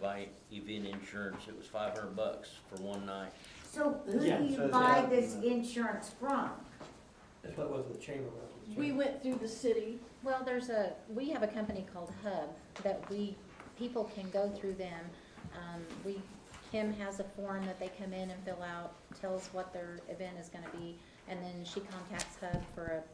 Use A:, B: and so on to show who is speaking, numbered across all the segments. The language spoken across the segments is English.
A: buy event insurance, it was five hundred bucks for one night.
B: So who do
C: Yeah,
B: you
C: so
B: buy
C: that-
B: this insurance from?
C: That's what was the chamber. was the
D: We
C: chamber.
D: went through the city,
E: Well, there's a, we have a company called Hub that we, people can go through them. Um, we, Kim has a form that they come in and fill out, tells what their event is gonna be, and then she contacts Hub for a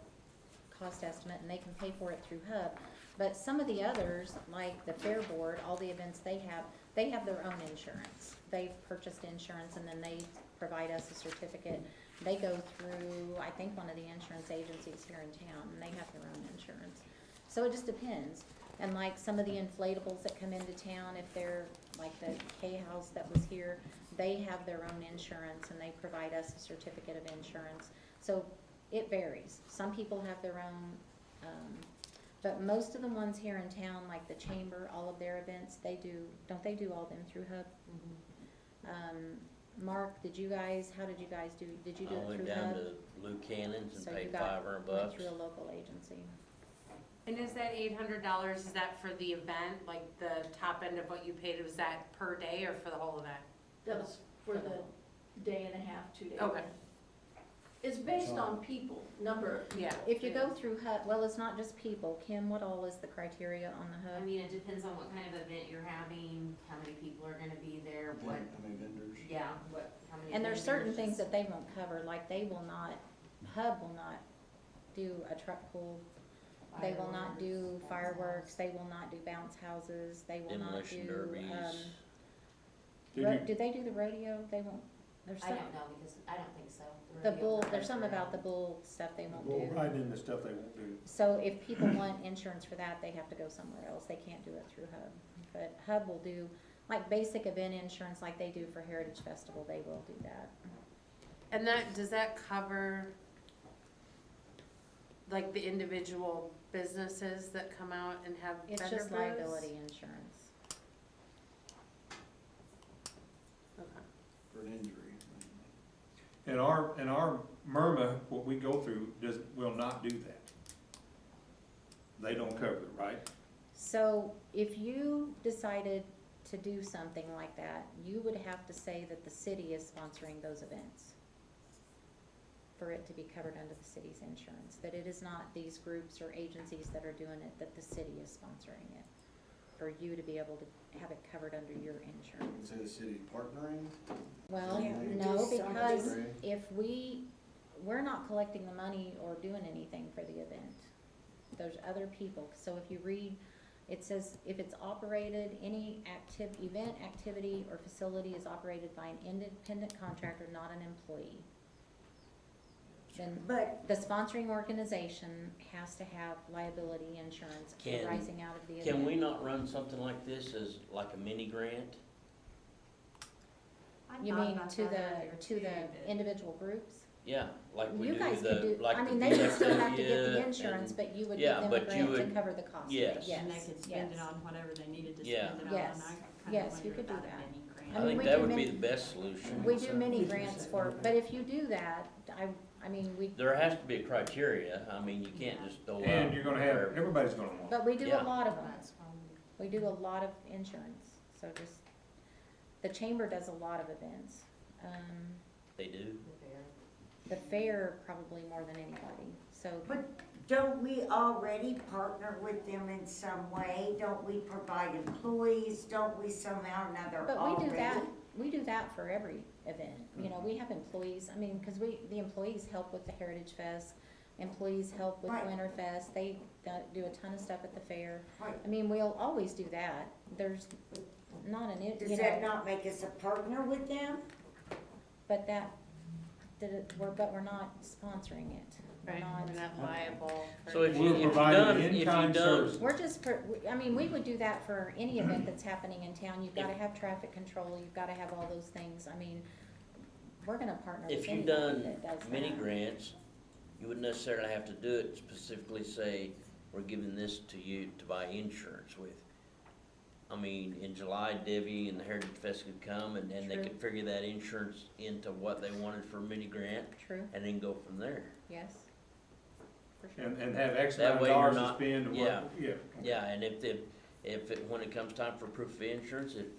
E: cost estimate, and they can pay for it through Hub. But some of the others, like the Fair Board, all the events they have, they have their own insurance. They've purchased insurance, and then they provide us a certificate. They go through, I think, one of the insurance agencies here in town, and they have their own insurance. So it just depends. And like some of the inflatables that come into town, if they're, like the K House that was here, they have their own insurance and they provide us a certificate of insurance. So it varies. Some people have their own, um, but most of the ones here in town, like the chamber, all of their events, they do, don't they do all them through Hub? Um, Mark, did you guys, how did you guys do, did you do
A: I
E: it
A: went
E: through
A: down
E: Hub?
A: to Lou Cannon's and
E: So you
A: paid
E: got-
A: five hundred
E: Went
A: bucks.
E: through a local agency.
F: And is that eight hundred dollars, is that for the event, like the top end of what you paid, was that per day or for the whole event?
D: that was for the day and a half, two days.
F: Okay.
D: It's based on people, number. of
F: Yeah.
D: people.
E: If you go through Hub, well, it's not just people. Kim, what all is the criteria on the
G: I
E: Hub?
G: mean, it depends on what kind of event you're having, how many people are gonna be there, what,
H: many vendors?
G: yeah, what, how many.
E: And there's certain things
G: vendors.
E: that they won't cover, like they will not, Hub will not do a truck pool. They will not do fireworks, they will not do bounce houses, they will not
A: Demolition
E: do,
A: derbies.
E: um,
H: Did
E: ro-
H: you-
E: do they do the rodeo? They won't, there's
G: I
E: some,
G: don't know, because I don't think so.
E: the
G: rodeo
E: bull,
G: cars
E: there's something
G: are-
E: about the bull stuff they won't
H: Well,
E: do.
H: right in the stuff they won't do.
E: So if people want insurance for that, they have to go somewhere else, they can't do it through Hub. But Hub will do, like, basic event insurance like they do for Heritage Festival, they will do that.
F: And that, does that cover like the individual businesses that come out and have vendor
E: It's just
F: booths?
E: liability insurance.
F: Okay.
H: For an injury.
I: And our, and our MIRMA, what we go through, does, will not do that. They don't cover it, right?
E: So if you decided to do something like that, you would have to say that the city is sponsoring those events for it to be covered under the city's insurance, that it is not these groups or agencies that are doing it, that the city is sponsoring it, for you to be able to have it covered under your insurance.
H: Say the city partnering?
E: Well,
H: Yeah, you
E: no,
B: do something.
E: because
H: Right.
E: if we, we're not collecting the money or doing anything for the event. There's other people, so if you read, it says, if it's operated, any active, event, activity, or facility is operated by an independent contractor, not an employee. Then
B: But
E: the sponsoring organization has to have liability insurance
A: Can-
E: arising out of the event.
A: Can we not run something like this as like a mini grant?
G: I
E: You
G: thought
E: mean
G: about
E: to
G: that
E: the,
G: earlier
E: to
G: too, but-
E: the individual groups?
A: Yeah, like we
E: You
A: do
E: guys could
A: the,
E: do,
A: like
E: I
A: the
E: mean, they would still have to get
A: VFW
E: the insurance,
A: and-
E: but you would give
A: yeah,
E: them a
A: but you
E: grant to
A: would-
E: cover the cost of it,
A: yes.
E: yes,
G: And they could spend it
E: yes.
G: on whatever they needed to
A: Yeah.
G: spend it on,
E: Yes.
G: and I
E: Yes,
G: kinda
E: you
G: wonder
E: could do
G: about a
E: that.
G: mini grant.
E: I
A: I
E: mean,
A: think
E: we
A: that
E: do
A: would be
E: mini-
A: the best solution.
E: We do mini grants for, but if you do that, I, I mean, we,
A: There has to be a criteria, I mean, you can't
G: Yeah.
A: just throw out.
I: And you're gonna have, everybody's gonna want it.
E: but we do a
A: Yeah.
E: lot of them,
G: That's probably-
E: we do a lot of insurance, so just, the chamber does a lot of events. Um,
A: They do,
E: the fair probably more than anybody, so,
B: don't we already partner with them in some way? Don't we provide employees? Don't we somehow or another
E: but we
B: already?
E: do that, we do that for every event, you know,
B: Mm-hmm.
E: we have employees, I mean, cause we, the employees help with the Heritage Fest, employees help with
B: Right.
E: Winter Fest, they uh, do a ton of stuff at the fair.
B: Right.
E: I mean, we'll always do that, there's not an, i- you
B: Does that
E: know,
B: not make us a partner with them?
E: but that, that it- we're, but we're not sponsoring it. We're
F: Right,
E: not,
F: and that liable for.
A: so if you,
I: We're
A: if you
I: providing
A: done, if you
I: in-kind
A: done,
I: service.
E: we're just, per- we- I mean, we would do that for any event that's happening in town, you've gotta
A: If-
E: have traffic control, you've gotta have all those things, I mean, we're gonna partner with
A: If you've
E: anybody
A: done
E: that does
A: mini
E: that.
A: grants, you wouldn't necessarily have to do it specifically say, we're giving this to you to buy insurance with. I mean, in July, Debbie and the Heritage Fest could come and then they
E: True.
A: could figure that insurance into what they wanted for mini grant
E: True,
A: and then go from there.
E: yes. For sure.
I: And, and have X
A: That
I: amount of
A: way you're
I: dollars to
A: not-
I: spend, and what-
A: yeah.
I: yeah.
A: Yeah, and if, if, if, it- when it comes time for proof of insurance, if